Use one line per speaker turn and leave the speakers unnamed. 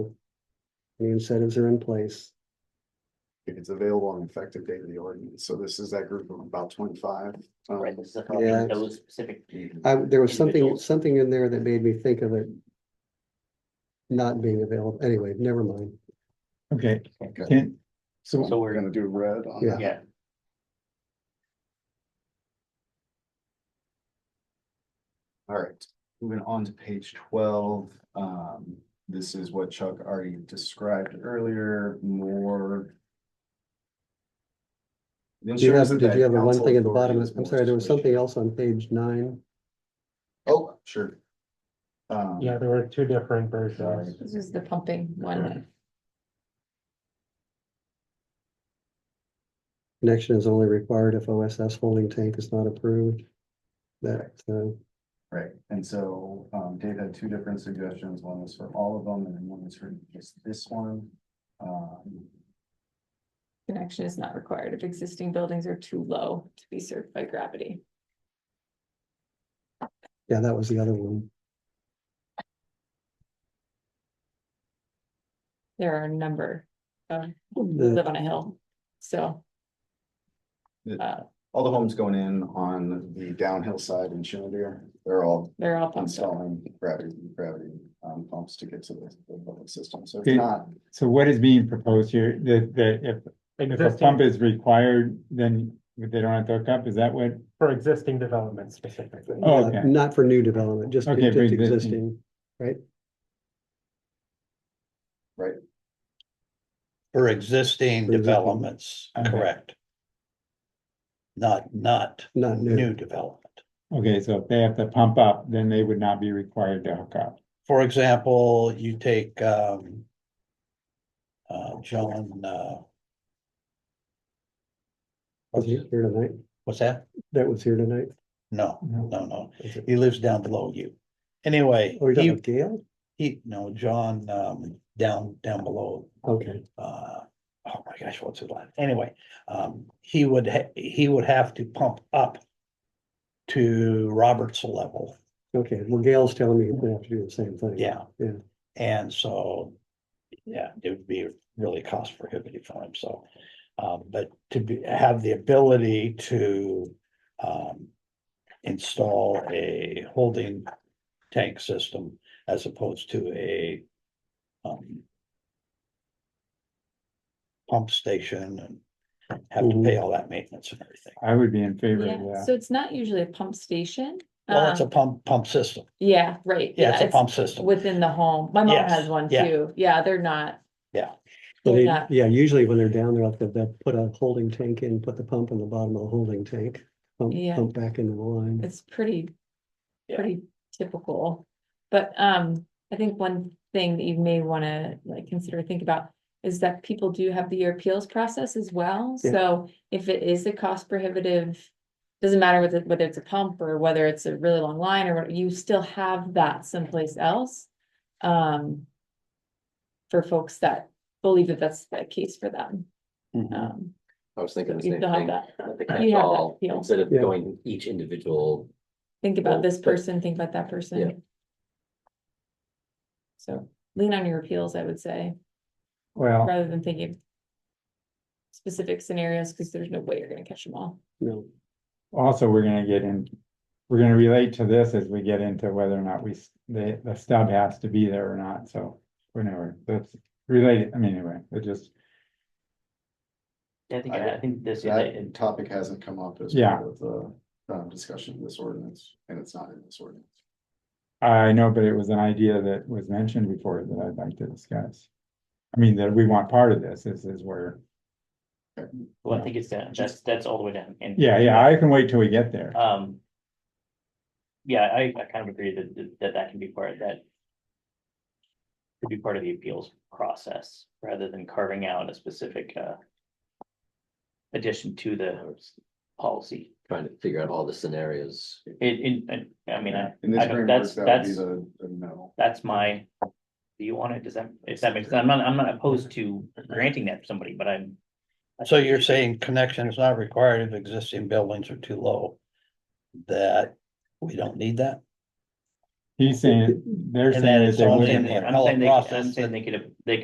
the incentives are in place.
If it's available on the effective date of the ordinance, so this is that group of about twenty-five. um,
Right, this is
Yeah.
about those specific.
I, there was something,
Individuals.
something in there that made me think of it. Not being available, anyway, never mind.
Okay,
Okay.
can, so
So
We're
we're,
gonna do red on.
Yeah.
yeah,
All right, moving on to page twelve, um, this is what Chuck already described earlier, more. the
Do you have,
insurance
did
that
you have a one
council
thing at the
authority
bottom?
is
I'm
more
sorry, there was something
discretionary.
else on page nine.
Oh, sure. Um,
Yeah, there were two different
sorry.
versions.
This is the pumping one.
Connection is only required if OSS holding tank is not approved. That, uh,
Right, and so, um, Dave had two different suggestions, one was for all of them, and then one was for just this one. Um,
Connection is not required if existing buildings are too low to be served by gravity.
yeah, that was the other one.
There are a number of who
The-
live on a hill, so.
The-
Uh,
all the homes going in on the downhill side in Shenandoah, they're all
they're all pumped up.
installing gravity, gravity um pumps to get to the the public system, so it's
Okay.
not.
so what is being proposed here? That, that if, if a
Existing,
pump is required, then they don't have to hook up? Is that what?
for existing developments specifically.
Oh,
uh,
okay.
Not for new development, just
Okay,
just
for existing.
existing, right?
Right.
For existing
For existing.
developments,
Okay.
correct. Not, not
Not new.
new development.
Okay, so if they have to pump up, then they would not be required to hook up.
For example, you take, um, uh, John, uh,
Was he here tonight?
what's that?
That was here tonight.
No,
No.
no, no.
Is it-
He lives down below you. Anyway,
Oh, you're talking
he,
about Gail?
he, no, John, um, down, down below
Okay,
uh, oh my gosh, what's his last? Anyway, um, he would, ha- he would have to pump up to Robert's level,
okay. Well, Gail's telling me he's gonna have to do the same thing.
yeah.
Yeah.
And so, yeah, it would be really cost prohibitive for him, so. Um, but to be, have the ability to, um, install a holding tank system as opposed to a, um, pump station and have to pay all that maintenance and everything.
I would be in favor of
Yeah,
that.
so it's not usually a pump station.
Well, it's Oh, a
um,
pump, pump system.
Yeah, right.
Yeah, it's a pump system.
Within the home. My mom
Yes,
has one
yeah.
too. Yeah, they're not.
Yeah.
Well,
They're
they-
not,
Yeah, usually when they're down there, they'll, they'll put a holding tank in, put the pump in the bottom of the holding tank. Pump,
Yeah.
pump back into the line.
it's pretty,
Yeah.
pretty typical. But um, I think one thing that you may wanna like consider, think about is that people do have the appeals process as well.
Yeah.
So if it is a cost prohibitive, doesn't matter whether, whether it's a pump or whether it's a really long line or what, you still have that someplace else. Um, for folks that believe that that's the case for them.
Mhm.
Um,
I was thinking
so
the
you
same
still have
thing.
that.
with the
you have that
catch-all,
appeal.
Instead of
Yeah.
going each individual,
Think about
Well,
this
but-
person, think about that
Yeah.
person. So lean on your appeals, I would say,
Well.
rather than thinking. Specific scenarios, because there's no way you're gonna catch them all.
No,
Also, we're gonna get in, we're gonna relate to this as we get into whether or not we, s- the, the stub has to be there or not, so. Whenever, that's related, I mean, anyway, it just,
I think,
I-
I think this is a-
That topic hasn't come up as
Yeah.
part of the um discussion of this ordinance, and it's not in this ordinance.
I know, but it was an idea that was mentioned before that I'd like to discuss. I mean, that we want part of this, this is where,
well, I think it's that, that's, that's all the way down. and-
yeah, yeah, I can wait till we get there.
Um. Yeah, I, I kind of agree that, that- that that can be part of that. Could be part of the appeals process rather than carving out a specific, uh. Addition to the policy.
trying to figure out all the scenarios.
It, it, I mean, I,
In this
I don't-
framework,
that's-
that would be
that's-
the, the no.
that's my. view on it? Does that, if that makes, I'm not, I'm not opposed to granting that to somebody, but I'm.
So you're saying connection is not required if existing buildings are too low? That we don't need that?
He's saying, they're
And
saying
then
that
it's
they
only
I'm
in
wouldn't.
saying they-
the
I'm saying they, I'm
appellate process
saying they could, they